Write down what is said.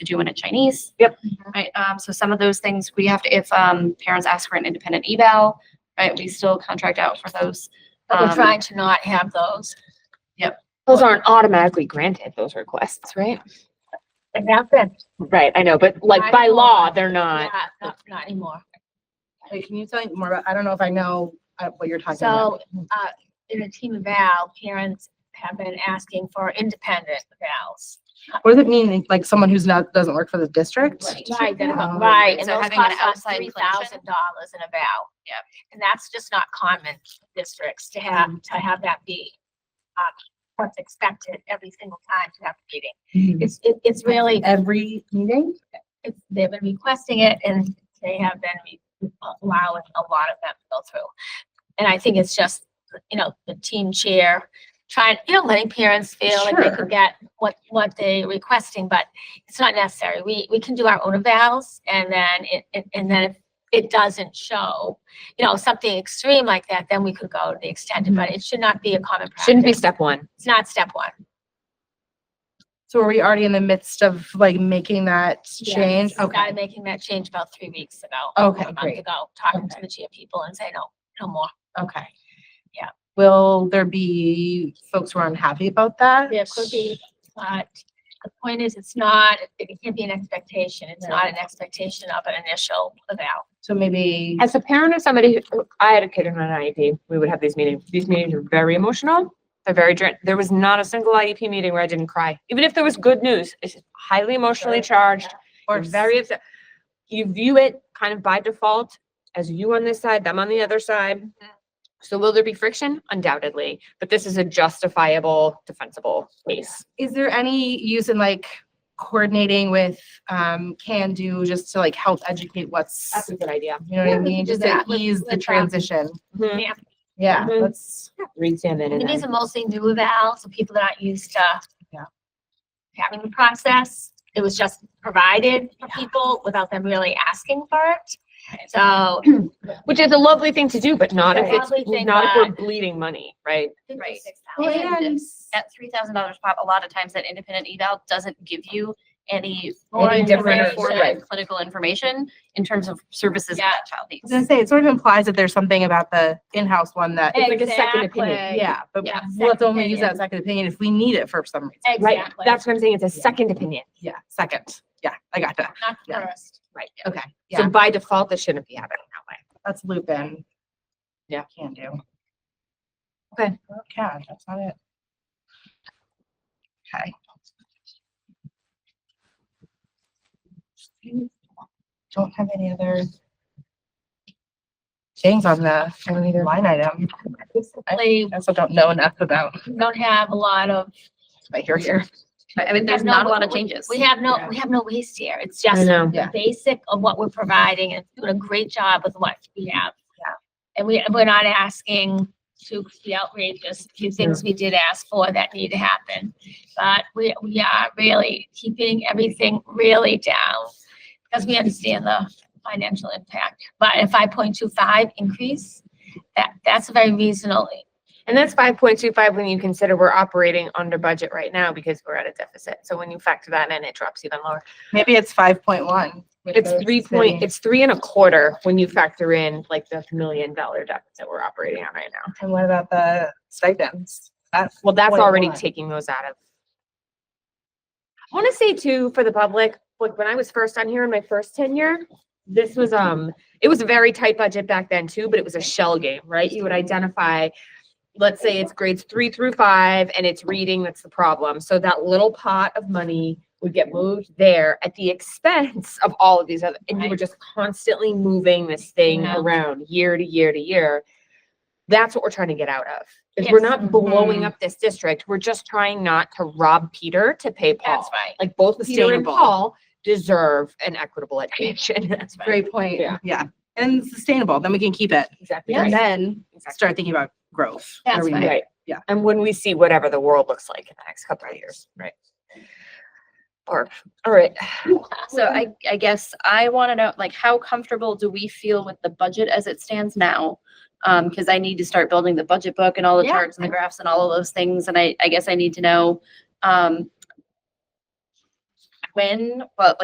to do one in Chinese. Yep. Mm-hmm. Right, um, so some of those things we have to, if, um, parents ask for an independent eval, right, we still contract out for those. But we're Um, trying to not have those. Those aren't automatically granted, those requests, right? It happened. Right, I know, but like by law, they're not. Not, not, not anymore. Wait, can you tell me more about, I don't know if I know uh, what you're talking about. So, uh, in the team eval, parents have been asking for independent evals. What does it mean, like someone who's not, doesn't work for the district? uh Right, that- Oh. right, and So those having an cost us outside three collection? thousand dollars in a vow. Yep. And that's just not common in districts to have, to have that be, uh, what's expected every single time to have a meeting. Mhm. It's, it, it's really, Every meeting? it's, they've been requesting it and they have been re- allowing a lot of them to go through. And I think it's just, you know, the team chair trying, you know, letting parents feel like they Sure. could get what, what they requesting, but it's not necessary. We, we can do our own evals and then it, it- and then if it doesn't show, you know, something extreme like that, then we could go to the extended, but it should not be a common practice. Mm-hmm. Shouldn't be step one. It's not step one. So are we already in the midst of like making that change? Yes, Okay. Started making that change about three weeks ago. Okay, a month great. Ago, talking to Okay. the GIA people and saying, no, no more. Okay. Yeah. Will there be folks who are unhappy about that? There could be, but the point is, it's not, it can't be an expectation. It's not an expectation of an initial eval. So maybe, As a parent of somebody, who- oh, I had a kid in an IEP, we would have these meetings. These meetings are very emotional. They're very, dra- there was not a single IEP meeting where I didn't cry, even if there was good news. It's highly emotionally charged or very upset. You view it kind of by default as you on this side, them on the other side. So will there be friction? Undoubtedly, but this is a justifiable, defensible case. is there any use in like coordinating with um Can Do just to like help educate what's, That's a good idea. you know what Yeah, I we mean? could do Just to that with- ease the with, um, transition. Mhm. Yeah. Yeah, Mhm. let's. Read salmon And and these then. are mostly new evals, so people that aren't used to Yeah. having the process. It was just provided for people without them really asking for it. So Which is a lovely thing to do, but not if Right. it's, Lovely thing, not if we're but- bleeding money, right? Right. $56,000. And at three thousand dollars pop, a lot of times that independent eval doesn't give you any More any different informative information. clinical information in terms of services Yeah. that child I was gonna needs. say, it sort of implies that there's something about the in-house one that, It's like a second opinion. Exactly. yeah, but Yeah, let's second only use that second opinion if we need it for some reason. Right, Exactly. that's what I'm saying, it's a second opinion. Yeah, second. Yeah, I got that. Not yeah. first. Okay, So yeah, by default, this shouldn't be happening that way. that's Lupin. Yeah. Can do. Okay. Okay, that's not it. Okay. Don't have any other things on the, on either line item. I Basically, also don't know enough about, we don't have a lot of. I hear here. Right, I mean, there's have no- not a lot of we- changes. We have no, we have no waste here. It's just know. Yeah. the basic of what we're providing and doing a great job with what we have. Yeah. And we, we're not asking to be outrageous, a few things we did ask for that need to happen. But we, we are really keeping everything really down because we understand the financial impact. But a five point two five increase, that, that's very reasonable. And that's five point two five when you consider we're operating under budget right now because we're at a deficit. So when you factor that in, it drops even lower. Maybe it's five point one. It's three point, it's three and a quarter when you factor in like the million dollar deficit we're operating on right now. And what about the stipends? That's, Well, that's already 21. taking those out of. I want to say too, for the public, like when I was first on here in my first tenure, this was, um, it was a very tight budget back then too, but it was a shell game, right? You would identify, let's say it's grades three through five and it's reading, that's the problem. So that little pot of money would get moved there at the expense of all of these other, and you were Right. just constantly moving this thing Yeah. around year to year to year. That's what we're trying to get out of. Is we're Yes. not blowing Mhm. up this district. We're just trying not to rob Peter to pay That's Paul. right. Like both Peter and Sustainable. Paul deserve an equitable education. That's right. Great point, Yeah. yeah. And sustainable, then we can keep it. Exactly. And right. then Exactly. start thinking about growth. That's Are we- right. Right. Yeah. And when we see whatever the world looks like in the next couple of years, right? Or, all right. So I, I guess I want to know, like, how comfortable do we feel with the budget as it stands now? Um, because I need to start building the budget book and all the Yeah. charts and the graphs and all of those things, and I, I guess I need to know, um, when, but like.